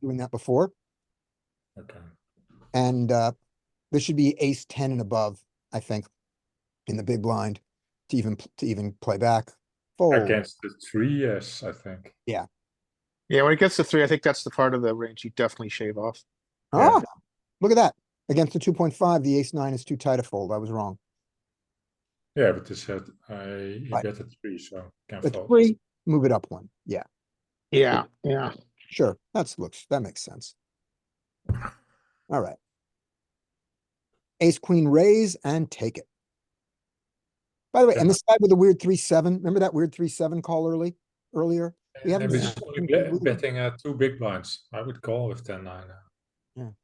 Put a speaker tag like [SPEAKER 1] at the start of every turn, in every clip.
[SPEAKER 1] doing that before.
[SPEAKER 2] Okay.
[SPEAKER 1] And uh, this should be ace ten and above, I think, in the big blind to even to even play back. Fold.
[SPEAKER 2] Against the three, yes, I think.
[SPEAKER 3] Yeah, when it gets to three, I think that's the part of the range you definitely shave off.
[SPEAKER 2] Yeah.
[SPEAKER 1] Ah, look at that. Against the two point five, the ace nine is too tight a fold. I was wrong.
[SPEAKER 2] Yeah, but this had I you
[SPEAKER 1] Right.
[SPEAKER 2] get a three, so can
[SPEAKER 1] But
[SPEAKER 2] fold.
[SPEAKER 1] three, move it up one. Yeah,
[SPEAKER 3] Yeah, yeah.
[SPEAKER 1] sure. That's looks that makes sense. All right. Ace queen raise and take it. By the way, and
[SPEAKER 2] Yeah.
[SPEAKER 1] this guy with the weird three seven. Remember that weird three seven call early earlier? we
[SPEAKER 2] Yeah,
[SPEAKER 1] haven't
[SPEAKER 2] but
[SPEAKER 1] seen
[SPEAKER 2] it's
[SPEAKER 1] that.
[SPEAKER 2] only bet- betting uh, two big blinds. I would call with ten nine. uh, now.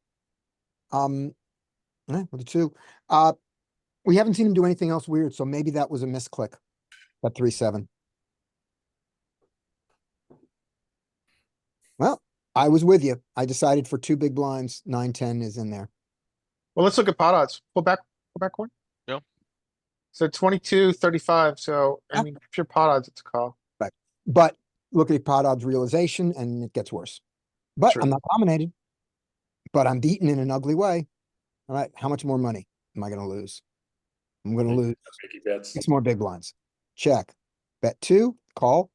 [SPEAKER 1] Um, eh, with the two, uh, we haven't seen him do anything else weird, so maybe that was a misclick. That three seven. Well, I was with you. I decided for two big blinds, nine ten is in there.
[SPEAKER 3] Well, let's look at pot odds. Pull back, pull back one.
[SPEAKER 4] Yeah.
[SPEAKER 3] So twenty-two, thirty-five, so I
[SPEAKER 1] Yeah.
[SPEAKER 3] mean, pure pot odds, it's a call.
[SPEAKER 1] But look at pot odds realization, and it gets worse. But
[SPEAKER 3] Sure.
[SPEAKER 1] I'm not dominated. But I'm beaten in an ugly way. All right, how much more money am I gonna lose? I'm gonna
[SPEAKER 2] Big-
[SPEAKER 1] lose
[SPEAKER 2] Biggie bets.
[SPEAKER 1] six more big blinds. Check. Bet two, call.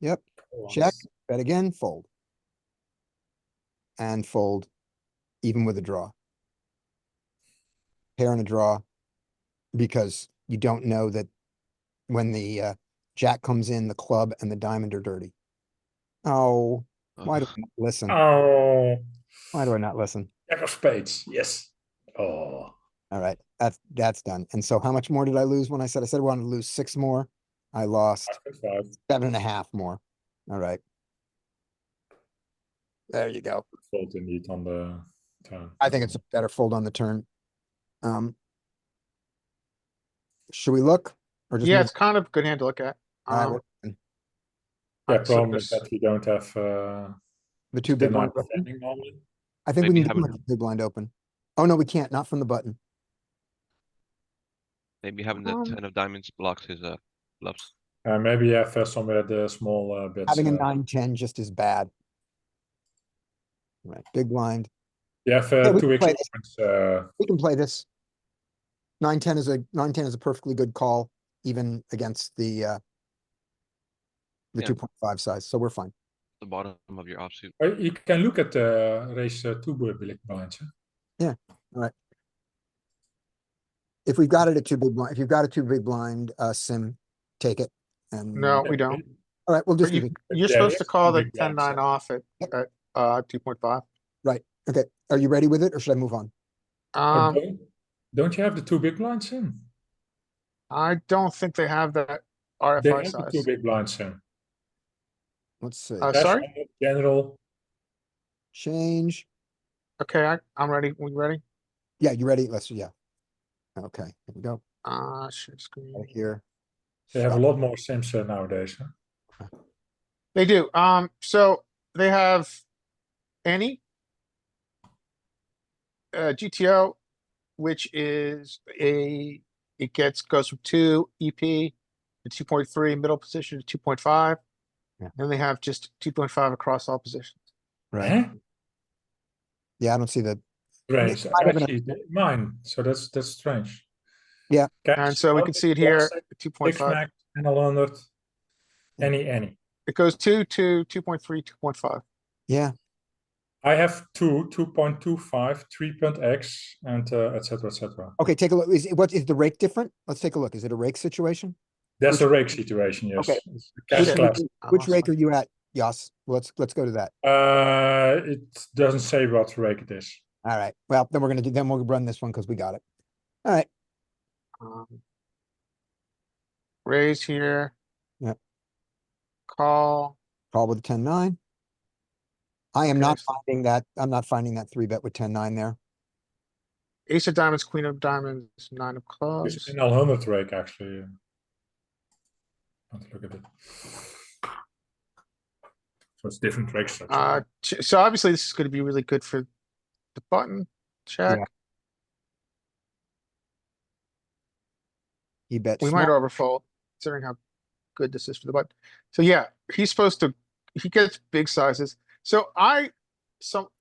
[SPEAKER 1] Yep.
[SPEAKER 2] once.
[SPEAKER 1] check. Bet again, fold. And fold, even with a draw. Pair and a draw, because you don't know that when the uh, jack comes in, the club and the diamond are dirty. Oh, why do
[SPEAKER 4] Ugh.
[SPEAKER 1] I not listen?
[SPEAKER 2] Oh,
[SPEAKER 1] Why do I not listen?
[SPEAKER 2] jack of spades. Yes. Oh,
[SPEAKER 1] All right, that's that's done. And so, how much more did I lose when I said I said I wanted to lose six more? I lost.
[SPEAKER 2] I think five.
[SPEAKER 1] seven and a half more. All right. There you go.
[SPEAKER 2] Fold indeed on the turn.
[SPEAKER 1] I think it's a better fold on the turn. Um. Should we look? or just
[SPEAKER 3] Yeah,
[SPEAKER 1] move-
[SPEAKER 3] it's kind of a good hand to look at.
[SPEAKER 1] Alright,
[SPEAKER 3] Um,
[SPEAKER 1] well,
[SPEAKER 2] Yeah,
[SPEAKER 3] Alright, so
[SPEAKER 2] problem is
[SPEAKER 3] there's-
[SPEAKER 2] that we don't have uh,
[SPEAKER 1] The two big
[SPEAKER 2] ten nine
[SPEAKER 1] blinds. open?
[SPEAKER 2] defending normally.
[SPEAKER 1] I think we
[SPEAKER 4] Maybe
[SPEAKER 1] need to
[SPEAKER 4] have
[SPEAKER 1] put
[SPEAKER 4] a-
[SPEAKER 1] the big blind open. Oh, no, we can't, not from the button.
[SPEAKER 4] Maybe having the
[SPEAKER 3] Um,
[SPEAKER 4] ten of diamonds blocks his uh bluffs.
[SPEAKER 2] Uh, maybe have uh, somewhere the small uh, bets.
[SPEAKER 1] Having a
[SPEAKER 2] uh,
[SPEAKER 1] nine, ten just is bad. Right, big blind.
[SPEAKER 2] You have
[SPEAKER 1] Yeah,
[SPEAKER 2] uh,
[SPEAKER 1] we
[SPEAKER 2] two
[SPEAKER 1] can play
[SPEAKER 2] extra points. Uh,
[SPEAKER 1] We can play this. Nine, ten is a, nine, ten is a perfectly good call, even against the, uh, the
[SPEAKER 4] Yeah.
[SPEAKER 1] two point five size, so we're fine.
[SPEAKER 4] The bottom of your offsuit.
[SPEAKER 2] Uh, You can look at the race uh, two big big blinds. Huh?
[SPEAKER 1] If we've got it at two big blind, if you've got a two big blind, uh, sim, take it. And,
[SPEAKER 3] No, we don't.
[SPEAKER 1] all right, we'll just leave
[SPEAKER 3] You-
[SPEAKER 1] it.
[SPEAKER 3] You're
[SPEAKER 2] Yeah,
[SPEAKER 3] supposed
[SPEAKER 2] yeah,
[SPEAKER 3] to call the
[SPEAKER 2] big
[SPEAKER 3] ten
[SPEAKER 2] blinds,
[SPEAKER 3] nine off at,
[SPEAKER 1] Yep.
[SPEAKER 3] at, uh, two point five.
[SPEAKER 1] Okay, are you ready with it or should I move on?
[SPEAKER 2] But
[SPEAKER 3] Um,
[SPEAKER 2] don't, don't you have the two big blinds in?
[SPEAKER 3] I don't think they have that
[SPEAKER 2] They
[SPEAKER 3] RFI
[SPEAKER 2] have the two
[SPEAKER 3] size.
[SPEAKER 2] big blinds in.
[SPEAKER 1] Let's see.
[SPEAKER 3] Uh,
[SPEAKER 2] That's
[SPEAKER 3] sorry?
[SPEAKER 2] on the General.
[SPEAKER 1] Change.
[SPEAKER 3] Okay, I, I'm ready. We ready?
[SPEAKER 1] Yeah, you ready? Let's, yeah. Okay, here we go.
[SPEAKER 3] Uh, share screen.
[SPEAKER 1] Right here.
[SPEAKER 2] They have a
[SPEAKER 1] Stop.
[SPEAKER 2] lot more sims uh, nowadays. Huh?
[SPEAKER 3] They do. Um, so they have any uh, GTO, which is a, it gets, goes from two EP to two point three, middle position to two point five.
[SPEAKER 1] Yeah.
[SPEAKER 3] Then they have just two point five across all positions.
[SPEAKER 1] Right.
[SPEAKER 2] Huh?
[SPEAKER 1] Yeah, I don't see the,
[SPEAKER 2] Strange.
[SPEAKER 1] might have an-
[SPEAKER 2] Actually, they- mine. So that's that's strange.
[SPEAKER 1] Yeah.
[SPEAKER 3] And so we can see it here, two point
[SPEAKER 2] Six
[SPEAKER 3] five.
[SPEAKER 2] max and a hundred. Any any.
[SPEAKER 3] It goes two, two, two point three, two point five.
[SPEAKER 1] yeah,
[SPEAKER 2] I have two, 2.25, 3.x, and uh, et cetera, et cetera.
[SPEAKER 1] okay, take a look. Is, it- what, is the rake different? Let's take a look. Is it a rake situation?
[SPEAKER 2] That's
[SPEAKER 1] Which-
[SPEAKER 2] a rake situation, yes.
[SPEAKER 1] Okay.
[SPEAKER 2] It's a cash
[SPEAKER 1] Which-
[SPEAKER 2] class.
[SPEAKER 3] I
[SPEAKER 1] Which
[SPEAKER 3] lost
[SPEAKER 1] rake
[SPEAKER 3] my-
[SPEAKER 1] are you at? Yas, let's, let's go to that.
[SPEAKER 2] Uh, it doesn't say what rake it is.
[SPEAKER 1] All right, well, then we're gonna do, then we'll run this one because we got it. All right,
[SPEAKER 3] um, Raise here.
[SPEAKER 1] Yep.
[SPEAKER 3] Call.
[SPEAKER 1] call with ten nine. I am
[SPEAKER 3] Okay,
[SPEAKER 1] not
[SPEAKER 3] so-
[SPEAKER 1] finding that, I'm not finding that three bet with ten nine there.
[SPEAKER 3] Ace of diamonds, queen of diamonds, nine of clubs.
[SPEAKER 2] It's an L hundred rake actually. Let's look at it. So it's different rake structure.
[SPEAKER 3] Uh, ch- so obviously this is gonna be really good for the button, check.
[SPEAKER 1] He bets.
[SPEAKER 3] We
[SPEAKER 1] small.
[SPEAKER 3] might overfold considering how good this is for the button. So yeah, he's supposed to, he gets big sizes. So I some,